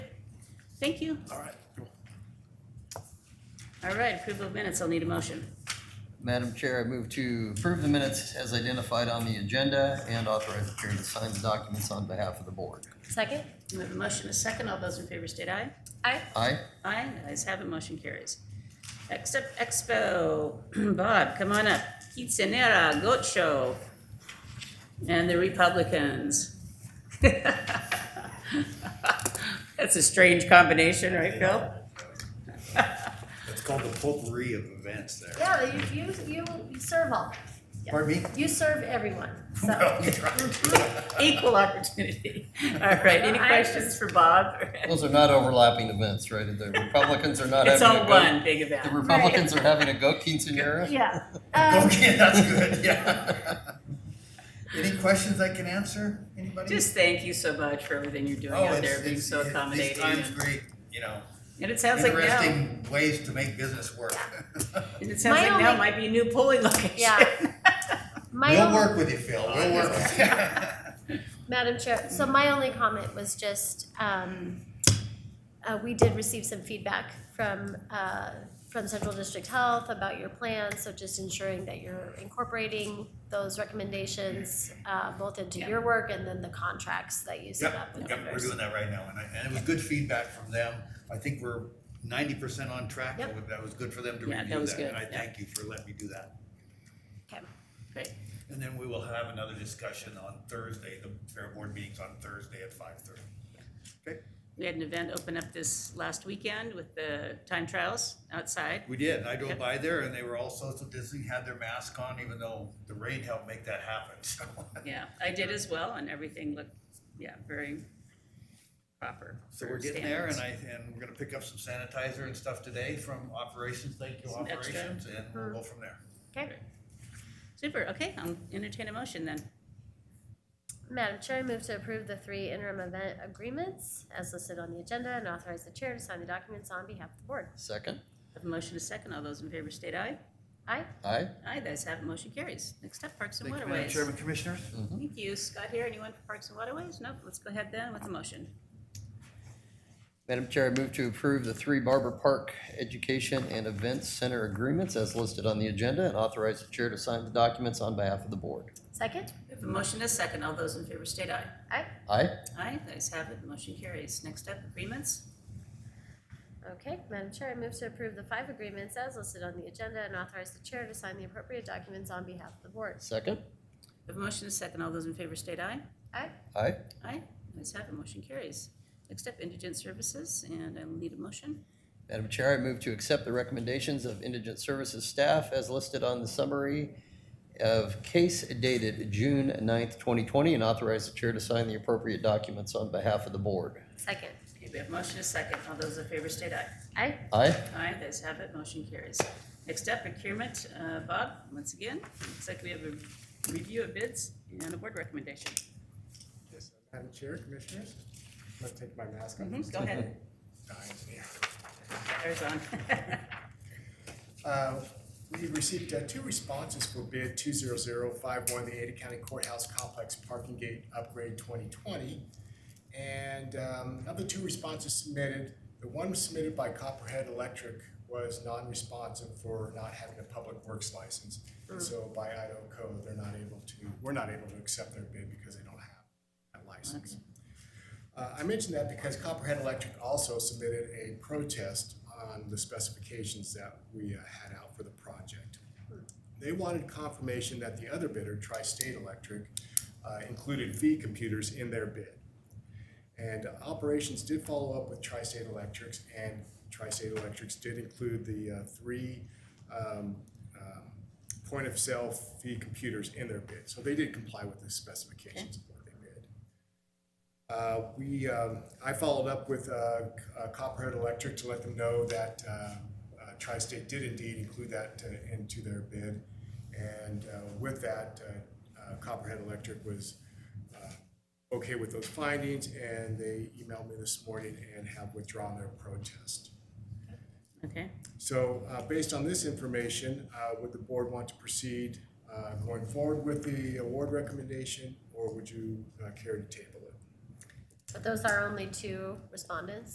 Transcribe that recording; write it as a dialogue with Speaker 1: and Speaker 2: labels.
Speaker 1: Thank you.
Speaker 2: All right, cool.
Speaker 1: All right, approval of minutes, I'll need a motion.
Speaker 3: Madam Chair, I move to approve the minutes as identified on the agenda and authorize the chair to sign the documents on behalf of the board.
Speaker 4: Second?
Speaker 1: We have a motion, a second. All those in favor state aye.
Speaker 4: Aye.
Speaker 3: Aye?
Speaker 1: Aye, the ayes have it, motion carries. Next up, Expo. Bob, come on up. Quinceanera, Goat Show, and the Republicans. That's a strange combination, right, Phil?
Speaker 2: It's called the potpourri of events there.
Speaker 4: Yeah, you, you, you, you serve all.
Speaker 3: Pardon me?
Speaker 4: You serve everyone, so.
Speaker 2: Well, we tried.
Speaker 1: Equal opportunity. All right, any
Speaker 4: I-
Speaker 1: questions for Bob?
Speaker 3: Those are not overlapping events, right? The Republicans are not
Speaker 1: It's
Speaker 3: having a
Speaker 1: all
Speaker 3: goat.
Speaker 1: one big
Speaker 3: The
Speaker 1: event.
Speaker 3: Republicans are having a goat quinceanera?
Speaker 4: Yeah. Um,
Speaker 2: Okay, that's good, yeah. Any questions I can answer, anybody?
Speaker 1: Just thank you so much for everything you're doing
Speaker 2: Oh,
Speaker 1: out
Speaker 2: it's-
Speaker 1: there, being
Speaker 2: it's-
Speaker 1: so
Speaker 2: it-
Speaker 1: accommodating.
Speaker 2: These times great, you know,
Speaker 1: And it sounds like now, and
Speaker 2: interesting ways to make business work.
Speaker 1: it sounds
Speaker 4: My
Speaker 1: like now
Speaker 4: only-
Speaker 1: might be a new polling location.
Speaker 4: Yeah. My
Speaker 2: We'll
Speaker 4: own, Oh,
Speaker 2: work with you, Phil, we'll work with you.
Speaker 4: Madam Chair, so my only comment was just, um, uh, we did receive some feedback from, uh, from Central District Health about your plan, so just ensuring that you're incorporating those recommendations, uh, both into
Speaker 1: Yeah.
Speaker 4: your work and then the contracts that you set up
Speaker 2: Yep,
Speaker 4: with
Speaker 2: yep, we're
Speaker 4: others.
Speaker 2: doing that right now, and I, and it was good feedback from them. I think we're ninety percent on track,
Speaker 4: Yep.
Speaker 2: and that was good for them to
Speaker 1: Yeah, that
Speaker 2: review
Speaker 1: was
Speaker 2: that, and
Speaker 1: good,
Speaker 2: I
Speaker 1: yeah.
Speaker 2: thank you for letting me do that.
Speaker 4: Okay.
Speaker 1: Great.
Speaker 2: And then we will have another discussion on Thursday, the fair board meeting's on Thursday at five thirty. Okay,
Speaker 1: We had an event open up this last weekend with the time trials outside.
Speaker 2: we did, I
Speaker 1: Yep.
Speaker 2: drove by there and they were all social distancing, had their mask on, even though the rain helped make that happen, so.
Speaker 1: Yeah, I did as well, and everything looked, yeah, very proper.
Speaker 2: So
Speaker 1: for
Speaker 2: we're getting there and
Speaker 1: standards.
Speaker 2: I, and we're gonna pick up some sanitizer and stuff today from operations, thank you
Speaker 1: Some extra.
Speaker 2: operations, and we'll go from there.
Speaker 4: Okay.
Speaker 1: Super, okay, I'll entertain a motion then.
Speaker 4: Madam Chair, I move to approve the three interim event agreements as listed on the agenda and authorize the chair to sign the documents on behalf of the board.
Speaker 3: Second?
Speaker 1: Have a motion to second, all those in favor state aye.
Speaker 4: Aye?
Speaker 3: Aye?
Speaker 1: Aye, the ayes have it, motion carries. Next up, Parks and
Speaker 2: Thank you,
Speaker 1: Waterways.
Speaker 2: Madam Chairman, Commissioners.
Speaker 1: Thank you. Scott here, anyone for Parks and Waterways? Nope, let's go ahead then with the motion.
Speaker 3: Madam Chair, I move to approve the three Barber Park Education and Events Center agreements as listed on the agenda and authorize the chair to sign the documents on behalf of the board.
Speaker 4: Second?
Speaker 1: We have a motion and a second, all those in favor state aye.
Speaker 4: Aye.
Speaker 3: Aye?
Speaker 1: Aye, the ayes have it, motion carries. Next up, agreements.
Speaker 4: Okay, Madam Chair, I move to approve the five agreements as listed on the agenda and authorize the chair to sign the appropriate documents on behalf of the board.
Speaker 3: Second?
Speaker 1: We have a motion and a second, all those in favor state aye.
Speaker 4: Aye?
Speaker 3: Aye?
Speaker 1: Aye, the ayes have it, motion carries. Next up, indigent services, and I'll need a motion.
Speaker 3: Madam Chair, I move to accept the recommendations of Indigent Services staff as listed on the summary of case dated June 9th, 2020, and authorize the chair to sign the appropriate documents on behalf of the board.
Speaker 4: Second?
Speaker 1: Okay, we have a motion and a second, all those in favor state aye.
Speaker 4: Aye?
Speaker 3: Aye?
Speaker 1: Aye, the ayes have it, motion carries. Next up, procurement, uh, Bob, once again, looks like we have a review of bids and a board recommendation.
Speaker 5: Yes, Madam Chair, Commissioners, I'm gonna take my mask off.
Speaker 1: Mhm, Go ahead, There's on.
Speaker 5: Uh, We received uh, two responses for bid two zero zero five one, the Ada County Courthouse Complex Parking Gate Upgrade twenty twenty. And um, of the two responses submitted, the one submitted by Copperhead Electric was non-responsive for not having a public works license.
Speaker 1: Mm.
Speaker 5: And so by Idaho code, they're not able to, we're not able to accept their bid because they don't have that license. Uh, I mention that because Copperhead Electric also submitted a protest on the specifications that we uh, had out for the project. They wanted confirmation that the other bidder, Tri-State Electric, uh, included fee computers in their bid. And operations did follow up with Tri-State Electrics, and Tri-State Electrics did include the uh, three um, um, point-of-sale fee computers in their bid. So they did comply with the specifications of what they bid. Uh, We, um, I followed up with uh, uh, Copperhead Electric to let them know that uh, uh, Tri-State did indeed include that uh, into their bid. And uh, with that, uh, uh, Copperhead Electric was uh, okay with those findings, and they emailed me this morning and have withdrawn their protest.
Speaker 1: Okay,
Speaker 5: So uh, based on this information, uh, would the board want to proceed uh, going forward with the award recommendation, or would you uh, care to table it?
Speaker 4: But those are only two respondents?